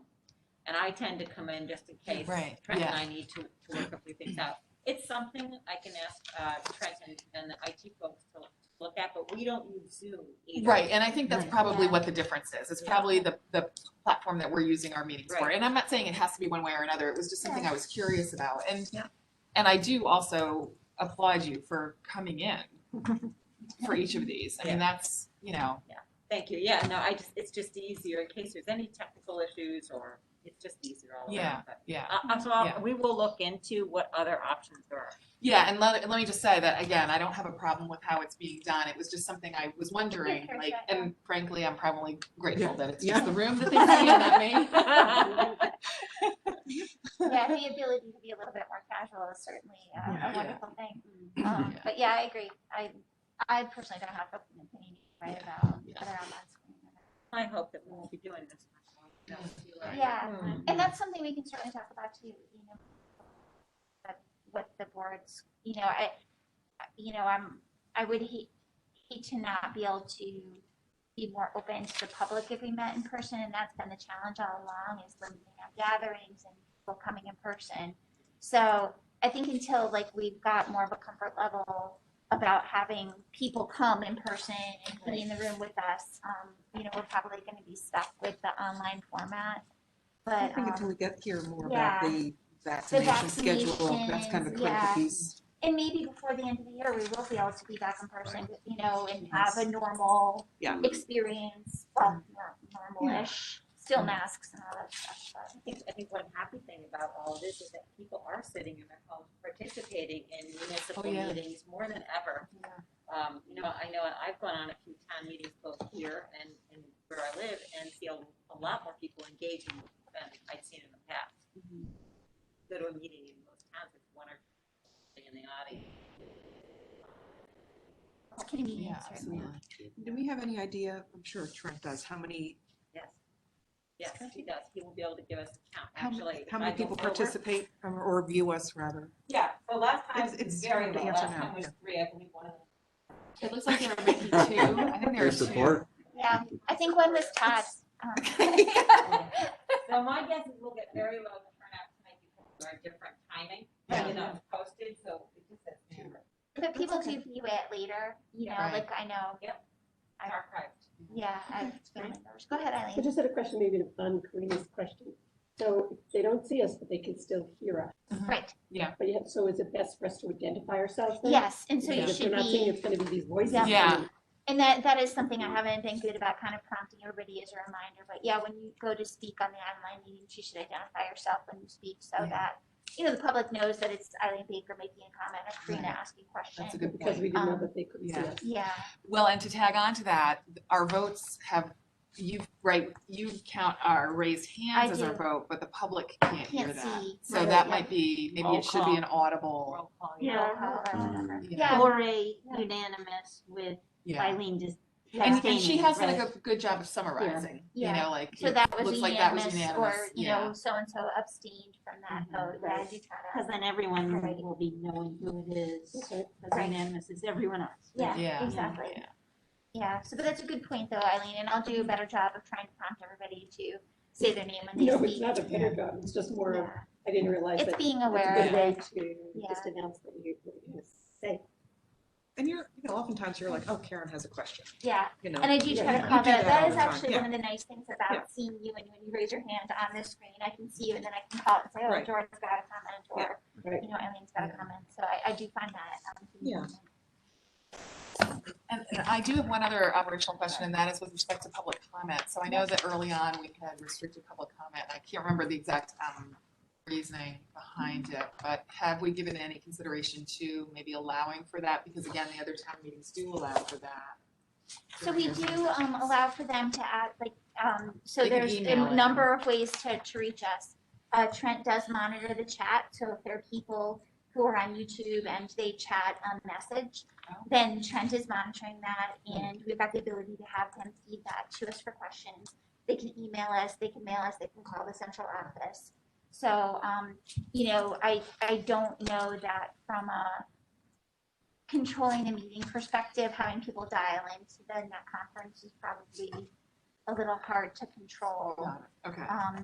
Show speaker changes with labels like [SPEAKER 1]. [SPEAKER 1] and I tend to come in just in case
[SPEAKER 2] Right,
[SPEAKER 1] Trent and
[SPEAKER 2] yeah.
[SPEAKER 1] I need to, to work a few things out. It's something I can ask uh, Trent and, and the IT folks to look at, but we don't use Zoom either.
[SPEAKER 2] Right, and I think that's
[SPEAKER 3] Right.
[SPEAKER 2] probably
[SPEAKER 1] Yeah.
[SPEAKER 2] what the difference is. It's
[SPEAKER 1] Yeah.
[SPEAKER 2] probably the, the platform that we're using our meetings for.
[SPEAKER 1] Right.
[SPEAKER 2] And I'm not saying it has to be one way or another. It was just something I was curious about. And,
[SPEAKER 3] Yeah.
[SPEAKER 2] and I do also applaud you for coming in for each of these. I mean, that's, you know,
[SPEAKER 1] Thank you. Yeah, no, I just, it's just easier in case there's any technical issues or it's just easier all around. but-
[SPEAKER 2] yeah.
[SPEAKER 1] Uh, uh, so I'll-
[SPEAKER 2] Yeah.
[SPEAKER 1] we will look into what other options there are.
[SPEAKER 2] Yeah, and let, and let me just say that again, I don't have a problem with how it's being done. It was just something I was wondering,
[SPEAKER 4] Okay,
[SPEAKER 2] like,
[SPEAKER 4] yeah.
[SPEAKER 2] and frankly, I'm probably grateful that it's
[SPEAKER 3] Yeah.
[SPEAKER 2] just the room that they see and not me.
[SPEAKER 4] Yeah, the ability to be a little bit more casual is certainly uh,
[SPEAKER 3] Yeah.
[SPEAKER 4] a
[SPEAKER 2] Yeah.
[SPEAKER 4] wonderful thing. Um,
[SPEAKER 2] Yeah.
[SPEAKER 4] But yeah, I agree. I, I personally don't have an opinion right about
[SPEAKER 2] Yeah.
[SPEAKER 4] whether I'm on screen. or not.
[SPEAKER 1] I hope that we won't be doing this. much longer.
[SPEAKER 2] Right.
[SPEAKER 4] Yeah,
[SPEAKER 2] Hmm.
[SPEAKER 1] Mm.
[SPEAKER 4] and that's something we can certainly talk about too, you know, but what the boards, you know, I, you know, I'm, I would hate, hate to not be able to be more open to the public if we met in person, and that's been the challenge all along, is limiting our gatherings and people coming in person. So I think until like we've got more of a comfort level about having people come in person and be in the room with us, um, you know, we're probably gonna be stuck with the online format.
[SPEAKER 3] I
[SPEAKER 4] But,
[SPEAKER 3] think until
[SPEAKER 4] um,
[SPEAKER 3] we get here more about
[SPEAKER 4] yeah.
[SPEAKER 3] the vaccination schedule, that's
[SPEAKER 4] vaccinations,
[SPEAKER 3] kind of a
[SPEAKER 4] yeah.
[SPEAKER 3] critical piece.
[SPEAKER 4] and maybe before the end of the year, we will be able to be back in person, you know, and have a normal
[SPEAKER 3] Yeah.
[SPEAKER 4] experience, well, nor- normal-ish, still masks and all that stuff, but.
[SPEAKER 1] I think, I think one happy thing about all of this is that people are sitting in their homes participating in municipal
[SPEAKER 2] Oh, yeah.
[SPEAKER 1] meetings more than ever. Um, you know, I know I've gone on a few town meetings both here and, and where I live and see a, a lot more people engaging than I'd seen in the past.
[SPEAKER 3] Mm-hmm.
[SPEAKER 1] Go to a meeting in most towns, it's one or two in the audience.
[SPEAKER 4] It's gonna be
[SPEAKER 2] Yeah,
[SPEAKER 4] certainly.
[SPEAKER 2] absolutely.
[SPEAKER 3] Do we have any idea, I'm sure Trent does, how many,
[SPEAKER 1] Yes. Yes, he does. He will be able to give us a count,
[SPEAKER 3] How many-
[SPEAKER 1] actually.
[SPEAKER 3] how
[SPEAKER 1] I
[SPEAKER 3] many
[SPEAKER 1] don't
[SPEAKER 3] people
[SPEAKER 1] know where-
[SPEAKER 3] participate or- or view us rather?
[SPEAKER 1] Yeah, so last time,
[SPEAKER 3] It's- it's
[SPEAKER 1] very
[SPEAKER 3] hard to
[SPEAKER 1] low.
[SPEAKER 3] answer
[SPEAKER 1] Last
[SPEAKER 3] now,
[SPEAKER 1] time was
[SPEAKER 3] yeah.
[SPEAKER 1] three, I believe one of them.
[SPEAKER 2] It looks like there are maybe two. I think there are
[SPEAKER 5] There's
[SPEAKER 2] two.
[SPEAKER 5] support.
[SPEAKER 4] Yeah, I think one was Todd. um,
[SPEAKER 1] So my guess is we'll get very low turnout tonight because of our different timing, you know, it's posted, so it just says two.
[SPEAKER 4] But people do view it later, you know,
[SPEAKER 2] Right.
[SPEAKER 4] like I know,
[SPEAKER 1] It's archived.
[SPEAKER 4] yeah, I've been members. Go ahead,
[SPEAKER 6] I
[SPEAKER 4] Eileen.
[SPEAKER 6] just had a question, maybe on Karina's question. So they don't see us, but they can still hear us.
[SPEAKER 4] Right,
[SPEAKER 6] But you have, so is it best for us to identify ourselves then?
[SPEAKER 4] yes, and so you
[SPEAKER 6] Because if
[SPEAKER 4] should
[SPEAKER 6] They're not saying
[SPEAKER 4] be,
[SPEAKER 6] it's gonna be these voices.
[SPEAKER 4] Yeah.
[SPEAKER 2] Yeah.
[SPEAKER 4] and that, that is something I
[SPEAKER 2] Mm-hmm.
[SPEAKER 4] haven't been good about kind of prompting everybody as a reminder, but yeah, when you go to speak on the online meetings, you should identify yourself when you speak so
[SPEAKER 2] Yeah.
[SPEAKER 4] that, you know, the public knows that it's Eileen Baker making a comment or Karina
[SPEAKER 2] Right.
[SPEAKER 4] asking a question.
[SPEAKER 2] That's a good
[SPEAKER 6] Because
[SPEAKER 2] point.
[SPEAKER 6] we didn't know
[SPEAKER 4] Um,
[SPEAKER 6] that they could see
[SPEAKER 2] yeah.
[SPEAKER 6] us.
[SPEAKER 4] Yeah,
[SPEAKER 2] Well, and to tag on to that, our votes have, you, right, you count our raised hands
[SPEAKER 4] I
[SPEAKER 2] as our
[SPEAKER 4] do.
[SPEAKER 2] vote, but the public can't hear
[SPEAKER 4] Can't
[SPEAKER 2] that.
[SPEAKER 4] see.
[SPEAKER 2] So
[SPEAKER 4] Right,
[SPEAKER 2] that
[SPEAKER 4] yeah.
[SPEAKER 2] might be, maybe
[SPEAKER 1] Roll
[SPEAKER 2] it should
[SPEAKER 1] call.
[SPEAKER 2] be an audible,
[SPEAKER 4] roll call or
[SPEAKER 5] Mm.
[SPEAKER 4] whatever.
[SPEAKER 2] you know,
[SPEAKER 4] Yeah,
[SPEAKER 7] Or a unanimous with
[SPEAKER 2] yeah.
[SPEAKER 7] Eileen just.
[SPEAKER 2] And, and she
[SPEAKER 7] abstaining,
[SPEAKER 2] has done a
[SPEAKER 7] right?
[SPEAKER 2] good, good job of summarizing, you
[SPEAKER 4] Yeah.
[SPEAKER 2] know, like,
[SPEAKER 4] So
[SPEAKER 2] it
[SPEAKER 4] that was
[SPEAKER 2] looks like that was
[SPEAKER 4] unanimous, or,
[SPEAKER 2] unanimous,
[SPEAKER 4] you
[SPEAKER 2] yeah.
[SPEAKER 4] know, so-and-so abstained from that
[SPEAKER 2] Mhm.
[SPEAKER 4] vote, yeah, I do try
[SPEAKER 7] Because
[SPEAKER 4] to.
[SPEAKER 7] then everyone
[SPEAKER 4] Right.
[SPEAKER 7] will be knowing who it is.
[SPEAKER 6] That's right.
[SPEAKER 7] Because
[SPEAKER 4] Right.
[SPEAKER 7] unanimous is everyone else.
[SPEAKER 2] Yeah. mm-hmm,
[SPEAKER 4] Yeah, exactly.
[SPEAKER 2] Yeah. Mm-hmm.
[SPEAKER 4] Yeah, so, but that's a good point though, Eileen, and I'll do a better job of trying to prompt everybody to say their name when they
[SPEAKER 6] No, it's
[SPEAKER 4] speak.
[SPEAKER 6] not a better job. It's just more, of
[SPEAKER 4] Yeah.
[SPEAKER 6] I didn't realize that.
[SPEAKER 4] It's being
[SPEAKER 6] that's
[SPEAKER 4] aware
[SPEAKER 6] a
[SPEAKER 4] of
[SPEAKER 6] good way
[SPEAKER 4] it.
[SPEAKER 6] to just announce that you, what you're gonna say.
[SPEAKER 3] And you're, you know, oftentimes you're like, oh, Karen has a question,
[SPEAKER 4] Yeah,
[SPEAKER 3] you know.
[SPEAKER 4] and I do try
[SPEAKER 6] Yeah,
[SPEAKER 4] to
[SPEAKER 6] you
[SPEAKER 4] call
[SPEAKER 3] do that
[SPEAKER 4] that, that
[SPEAKER 3] all
[SPEAKER 4] is
[SPEAKER 3] the time,
[SPEAKER 4] actually
[SPEAKER 3] yeah.
[SPEAKER 4] one of the nice things
[SPEAKER 3] Yeah.
[SPEAKER 4] about seeing you and when you raise your hand on the screen, I can see you and then I can call and say, oh,
[SPEAKER 3] Right.
[SPEAKER 4] Jordan's got a comment or,
[SPEAKER 6] Right.
[SPEAKER 4] you know, Eileen's got a
[SPEAKER 3] Yeah.
[SPEAKER 4] comment, so I, I do find that. um, to be
[SPEAKER 3] Yeah.
[SPEAKER 4] helpful.
[SPEAKER 2] And and I do have one other operational question, and that is with respect to public comment. So I know that early on, we had restricted public comment. and I can't remember the exact um, reasoning behind it, but have we given any consideration to maybe allowing for that? Because again, the other town meetings do allow for that.
[SPEAKER 4] So we do um allow for them to add, like, um, so
[SPEAKER 2] They can
[SPEAKER 4] there's
[SPEAKER 2] email
[SPEAKER 4] a
[SPEAKER 2] it.
[SPEAKER 4] number of ways to to reach us. Uh Trent does monitor the chat, so if there are people who are on YouTube and they chat a message,
[SPEAKER 2] Oh.
[SPEAKER 4] then Trent is monitoring that and we've got the ability to have them feed that to us for questions. They can email us, they can mail us, they can call the central office. So um, you know, I I don't know that from a controlling the meeting perspective, having people dial into the net conference is probably a little hard to control.
[SPEAKER 2] Okay.
[SPEAKER 4] Um,